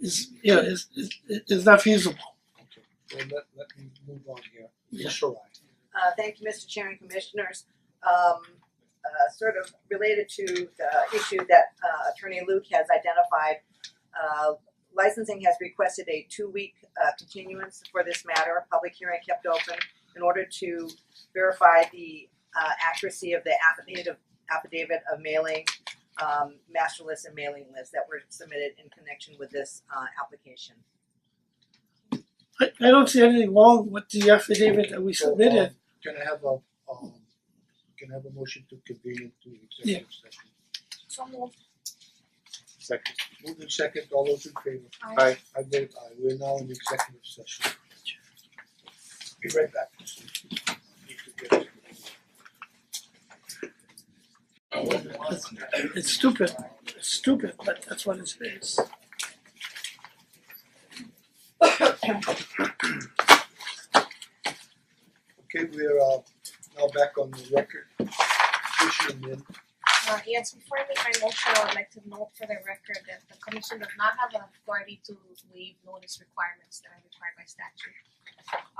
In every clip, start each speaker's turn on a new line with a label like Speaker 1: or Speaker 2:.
Speaker 1: is, yeah, is, is, is not feasible.
Speaker 2: Okay, well, let let me move on here.
Speaker 1: Yeah.
Speaker 2: Ms. Sharai.
Speaker 3: Uh thank you, Mister Chair and Commissioners. Um uh sort of related to the issue that uh Attorney Luke has identified. Uh licensing has requested a two-week uh continuance for this matter, a public hearing kept open in order to verify the uh accuracy of the affidavit of affidavit of mailing um master list and mailing list that were submitted in connection with this uh application.
Speaker 1: I, I don't see anything wrong with the affidavit that we
Speaker 2: So, um,
Speaker 1: submitted.
Speaker 2: Can I have a um can I have a motion to convene into executive session?
Speaker 4: So moved.
Speaker 2: Second. Move in second, all those in favor?
Speaker 4: Aye.
Speaker 2: I vote aye, we're now in executive session. Be right back. Need to get-
Speaker 1: It's- It's stupid, it's stupid, but that's what it is.
Speaker 2: Okay, we're uh now back on the record. Issue in,
Speaker 4: Uh, yes, before I make my motion, I would like to note for the record that the commission does not have the authority to waive notice requirements that are required by statute.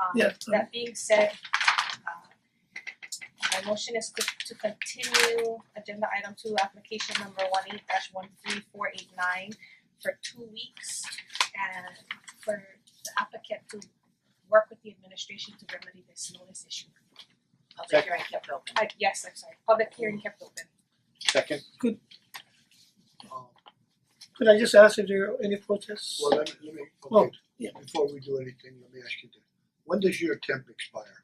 Speaker 4: Um,
Speaker 1: Yeah, so-
Speaker 4: That being said, uh, my motion is to to continue agenda item two, application number one eight dash one three four eight nine for two weeks and for the applicant to work with the administration to remedy this notice issue.
Speaker 3: Public hearing kept open.
Speaker 4: Uh, yes, I'm sorry, public hearing kept open.
Speaker 5: Second.
Speaker 2: um
Speaker 1: Could I just ask if there are any protests?
Speaker 2: well, let me let me,
Speaker 1: Well,
Speaker 2: okay,
Speaker 1: yeah.
Speaker 2: before we do anything, let me ask you this. When does your temp expire?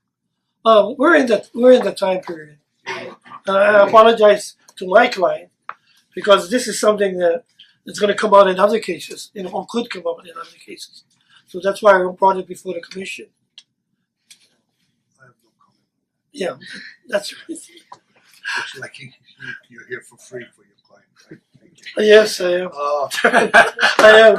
Speaker 1: Uh, we're in the, we're in the time period. Uh, I apologize to my client, because this is something that is gonna come out in other cases, you know, or could come up in other cases. So that's why I brought it before the commission,
Speaker 2: I have no comment.
Speaker 1: yeah, that's right.
Speaker 2: It's like you you- you're here for free for your client, right? Thank you.
Speaker 1: Yes, I am,
Speaker 2: Uh
Speaker 1: I am,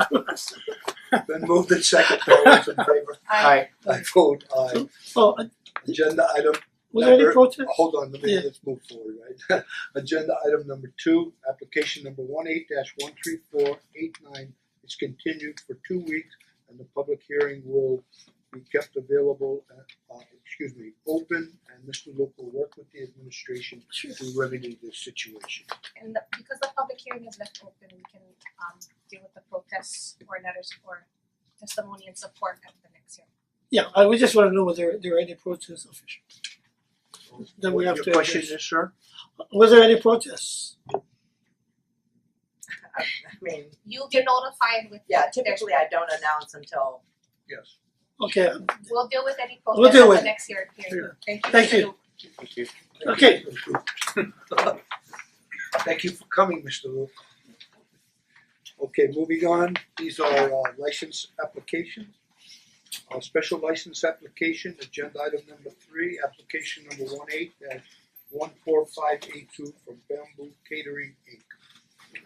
Speaker 2: then moved in second, all those in favor?
Speaker 5: Aye.
Speaker 2: I vote aye.
Speaker 1: oh, uh,
Speaker 2: Agenda item
Speaker 1: was there any
Speaker 2: Number-
Speaker 1: protest?
Speaker 2: Hold on, let me,
Speaker 1: Yeah.
Speaker 2: let's move forward, right? Agenda item number two, application number one eight dash one three four eight nine is continued for two weeks and the public hearing will be kept available, uh, uh, excuse me, open and Mr. Luke will work with the administration
Speaker 1: Sure.
Speaker 2: to remedy this situation.
Speaker 4: And the, because the public hearing is left open, we can um deal with the protests or letters or testimony and support at the next hearing.
Speaker 1: Yeah, I, we just wanna know whether there are any protests official. Then we have to
Speaker 2: Your question
Speaker 1: address-
Speaker 2: is, sir?
Speaker 1: Was there any protests?
Speaker 3: I I mean,
Speaker 4: You'll get notified with
Speaker 3: yeah,
Speaker 4: the-
Speaker 3: typically I don't announce until
Speaker 2: Yes.
Speaker 1: Okay,
Speaker 4: We'll deal with any
Speaker 1: We'll
Speaker 4: protests
Speaker 1: deal
Speaker 4: at
Speaker 1: with
Speaker 4: the
Speaker 1: it.
Speaker 4: next hearing.
Speaker 2: Sure.
Speaker 4: Thank you.
Speaker 1: Thank
Speaker 4: Mr.
Speaker 1: you.
Speaker 4: Luke.
Speaker 5: Thank you.
Speaker 1: Okay.
Speaker 2: Thank you for coming, Mr. Luke. Okay, moving on, these are uh license applications. Our special license application, agenda item number three, application number one eight dash one four five eight two from Bamboo Catering Inc.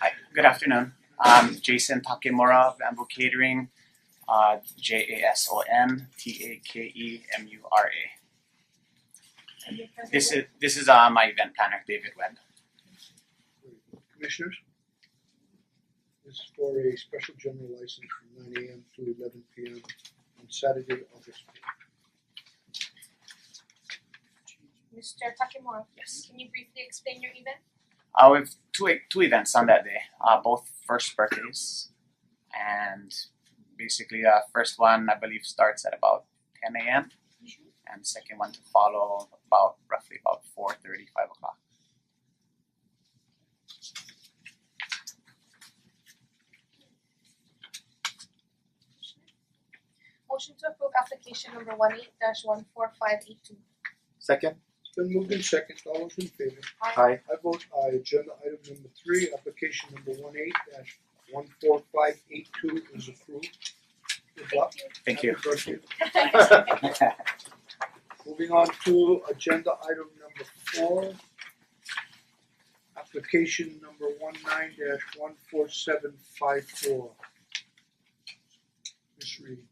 Speaker 6: Hi, good afternoon. I'm Jason Takemura of Bamboo Catering, uh, J A S O N T A K E M U R A.
Speaker 4: And your present
Speaker 6: This is this is uh, my event planner, David Webb.
Speaker 2: Commissioners? This is for a special general license from nine AM to eleven PM on Saturday, August eighth.
Speaker 4: Mr. Takemura,
Speaker 6: Yes.
Speaker 4: can you briefly explain your event?
Speaker 6: Uh, we have two e- two events on that day, uh, both first birthdays, and basically, uh, first one I believe starts at about 10 a.m. and second one to follow about roughly about 4:30, 5 o'clock.
Speaker 4: Motion to approve application number one eight dash one four five eight two.
Speaker 5: Second.
Speaker 2: It's been moved in second, all those in favor?
Speaker 5: Aye.
Speaker 2: I vote aye, agenda item number three, application number one eight dash one four five eight two is approved. Good luck.
Speaker 6: Thank you.
Speaker 2: Happy birthday.
Speaker 4: Thank you.
Speaker 2: Moving on to agenda item number four. Application number one nine dash one four seven five four. Ms. Reed.